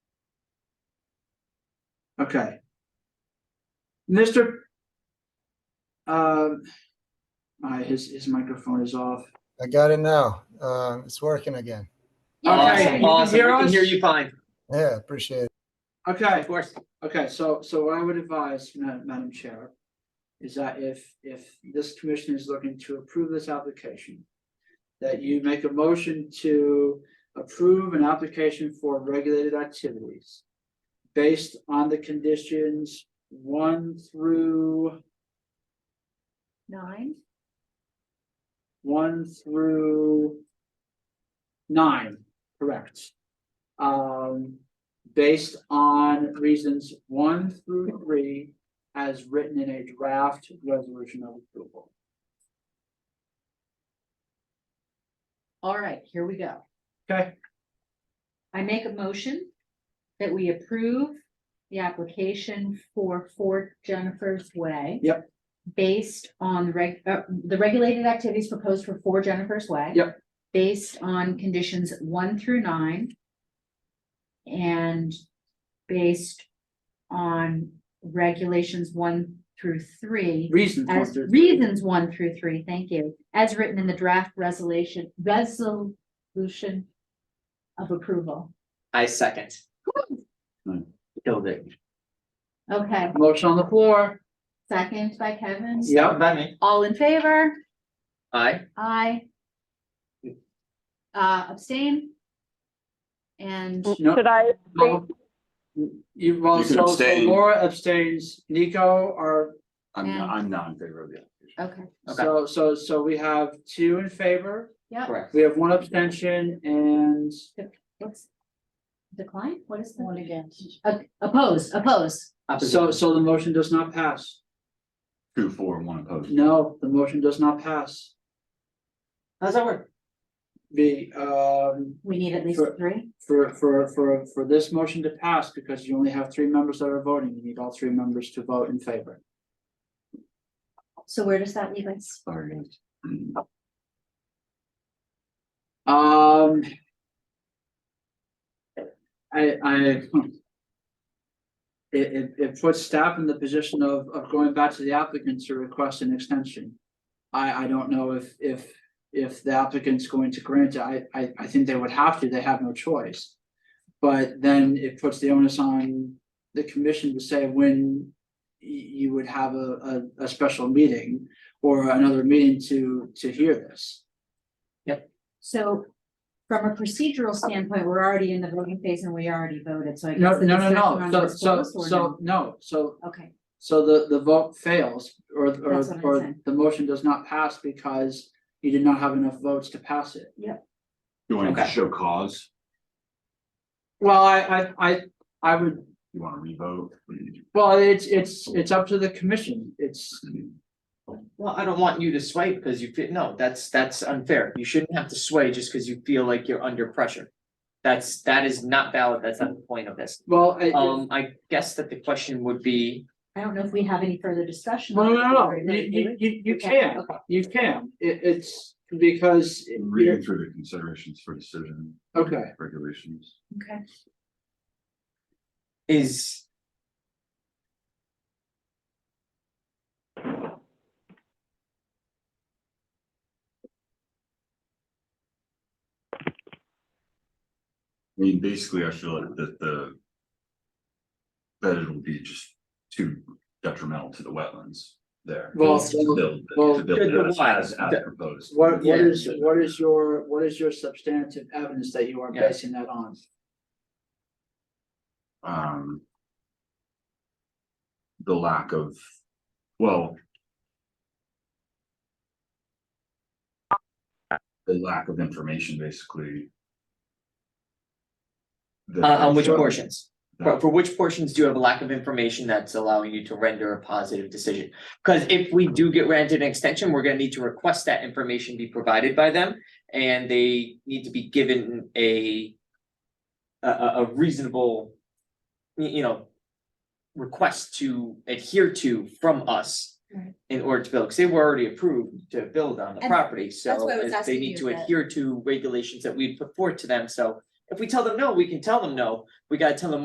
Okay. Mr. Um, all right, his, his microphone is off. I got it now. Uh, it's working again. Okay, you Awesome, can awesome. We hear can hear us? you fine, Yeah, appreciate it. Okay, of course. okay, so, so what I would advise, Ma- Madam Chair, is that if, if this commission is looking to approve this application, that you make a motion to approve an application for regulated activities based on the conditions one through, Nine? one through nine, correct. Um, based on reasons one through three as written in a draft resolution of approval. All right, here we go. Okay. I make a motion that we approve the application for Fort Jennifer's Way. Yep. Based on the reg, uh, the regulated activities proposed for Four Jennifer's Way. Yep. Based on conditions one through nine. And based on regulations one through three. Reasons one As through three. reasons one through three, thank you, as written in the draft resolution, resolution of approval. I second. Killed it. Okay, Motion on the floor. second by Kevin, Yep. By me. all in favor? Aye, Aye. Uh, abstain? And No. Should I, no. You, well, You can so so abstain. Laura abstains, Nico are, I'm, not- And- I'm not in favor of the application. Okay, Okay. so, so, so we have two in favor. yeah, correct. We have one abstention and what's decline? What is the? One against. Oppose, oppose. so, so the motion does not pass. Two, four, and one opposed. No, the motion does not pass. How's that work? The, um, We need at least Sure. three. for, for, for, for this motion to pass, because you only have three members that are voting, you need all three members to vote in favor. So where does that leave us? Sorry, guys. Mm-hmm. Um. I, I. hmm. It, it, it puts staff in the position of, of going back to the applicant to request an extension. I, I don't know if, if, if the applicant's going to grant it, I, I, I think they would have to, they have no choice. But then it puts the onus on the commission to say when y- you would have a, a, a special meeting or another meeting to, to hear this. So from a procedural standpoint, we're already in the voting phase and we already voted, so I. No, guess the no, no, discussion no, on so, this so, goes or so, no, so, no? Okay, so the, the vote fails, or, or, That's what I'm or saying. the motion does not pass because you did not have enough votes to pass it. You want to Okay. show cause? Well, I, I, I, I would, You want to revote? Mm-hmm. well, it's, it's, it's up to the commission, it's, Well, I don't want you to sway because you feel, no, that's, that's unfair. You shouldn't have to sway just because you feel like you're under pressure. That's, that is not valid. That's not the point of this. well, I, well, Um, I guess that the question would be, I don't know if we have any further discussion. no, on no, it. no, Very you, good. you, you, you Okay, can, okay. you can, it, it's because, I'm Reading through the considerations for decision okay. regulations. Okay, is. I mean, basically, I feel like that the. That it'll be just too detrimental to the wetlands there. Well, To build- well- to build it As as proposed. What, what Yeah. is, what is your, what is your substantive evidence that you are Yeah. basing that on? um. The lack of, well. The lack of information, basically. Uh, On, on which That- portions? For, for which portions do you have a lack of information that's allowing you to render a positive decision? Because if we do get granted an extension, we're gonna need to request that information be provided by them, and they need to be given a a, a- a reasonable, y- you know, request to adhere to from us Right. in order to build, because they were already approved to build on the And property, so why I was as they asking need you to that. adhere to regulations that we put forward to them, so if we tell them no, we can tell them no, we gotta tell them